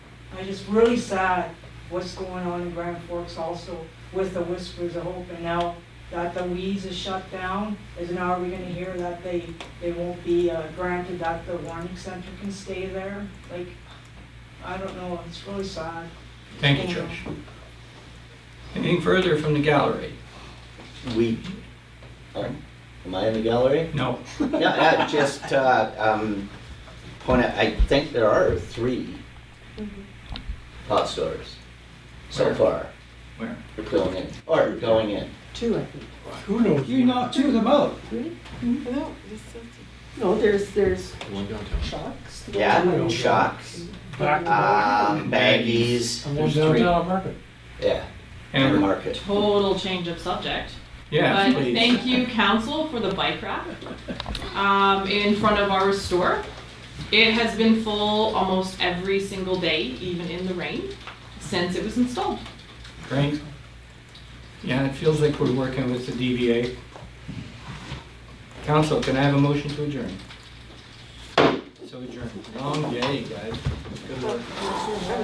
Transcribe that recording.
And it's really sad what's going on in Grand Forks also with the Whispers of Hope. And now that the weeds is shut down, is now are we gonna hear that they, they won't be uh, granted that the warning center can stay there? Like, I don't know, it's really sad. Thank you, Josh. Anything further from the gallery? We, um, am I in the gallery? No. No, no, just, uh, um, point out, I think there are three Mm-hmm. pot stores so Where? far Where? going in, or going in. Two, I think. Who knows? You knocked two of them out. Three? No, just so- No, there's, there's One downtown. Shocks. Yeah, Chucks, Back um, Baggies, And Ah. There's then three. downtown market. yeah, and And, Market. total change of subject. yeah, but please. thank you, council, for the bike rack um, in front of our store. It has been full almost every single day, even in the rain, since it was installed. Great. Yeah, it feels like we're working with the DVA. Council, can I have a motion to adjourn? So adjourned. Long day, guys. Good work.